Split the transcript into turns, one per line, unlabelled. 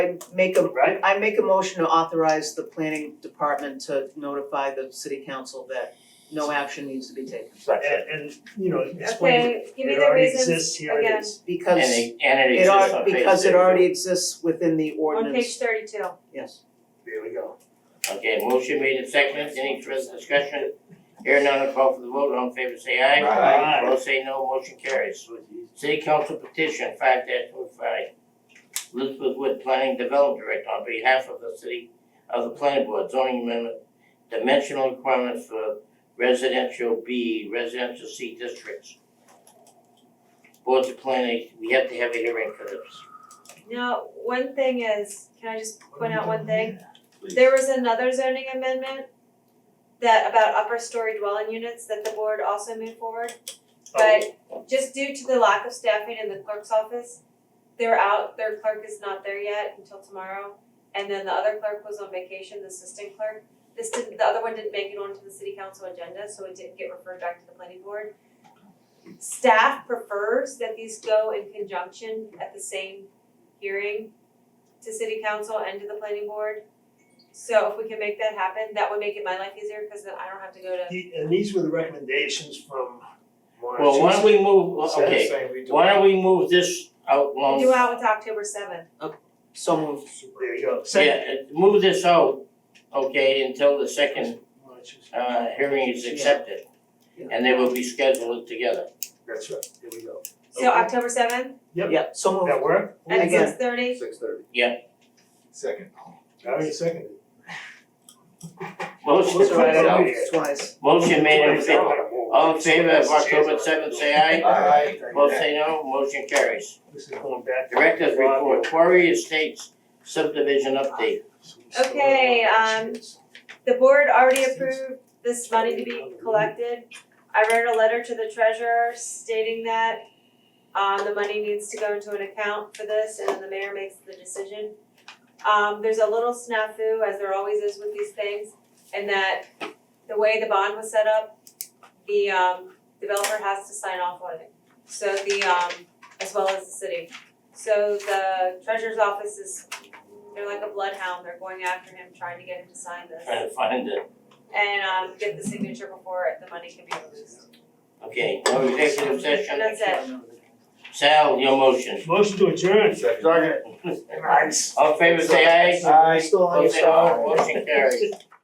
make a,
right?
I make a motion to authorize the planning department to notify the city council that no action needs to be taken.
And, and, you know, explain,
Okay, give me
it
the
already
reasons
exists, here it
again.
is.
And
Because
it, and it
it
exists on
are,
page
because it
thirty-two.
already exists within the
on page
ordinance,
thirty-two.
yes.
There we go.
Okay, motion made and seconded, any further discussion? Here none, I'll call for the vote, all in favor say aye.
Aye.
Opposed say no, motion carries. City Council petition five dash one five. Elizabeth Wood, Planning Development Director, on behalf of the city, of the planning board, zoning amendment, dimensional requirements for residential B, residential C districts. Boards of planning, we have to have a hearing for this.
Now, one thing is, can I just point out one thing?
Please.
There was another zoning amendment that about upper story dwelling units that the board also moved forward.
Oh,
But just due to the lack of staffing in the clerk's office, they're out, their clerk is not there yet until tomorrow. And then the other clerk was on vacation, the assistant clerk. This didn't, the other one didn't make it onto the city council agenda, so it didn't get referred back to the planning board. Staff prefers that these go in conjunction at the same hearing to city council and to the planning board. So if we can make that happen, that would make it my life easier, cause then I don't have to go to
The- And these were the recommendations from Warren.
Well, why don't we move,
Says
okay,
saying we do-
Why don't we move this out long?
Do out with October seventh.
So moved.
There you go. Second.
Yeah, uh, move this out, okay, until the second uh hearing is accepted.
Yeah.
And they will be scheduled together.
That's right, there we go.
So
Okay.
October seventh
Yep.
Yeah, so moved.
That work?
at
Again.
six thirty.
Six thirty.
Yeah.
Second.
Already seconded.
Motion,
Let's
So I
try
don't
that.
know, twice.
motion made in favor, all in favor of October seventh,
seventh.
say aye.
Aye.
Both say no, motion carries.
This is going back. to
Directors
Rob.
report, Quarry Estates subdivision update.
Okay, um, The board already approved this money to be collected. I wrote a letter to the treasurer stating that um the money needs to go into an account for this and then the mayor makes the decision. Um there's a little snafu, as there always is with these things, in that the way the bond was set up, the um developer has to sign off on it. So the um as well as the city. So the treasurer's office is, they're like a bloodhound, they're going after him, trying to get him to sign this
Trying to find it.
and um get the signature before the money can be released.
Okay, no executive session.
That's it.
Sal, your motion.
Motion to adjourn.
Second.
Sorry.
All in favor, say aye.
Aye.
Still on your
Both say
side.
no, motion carries.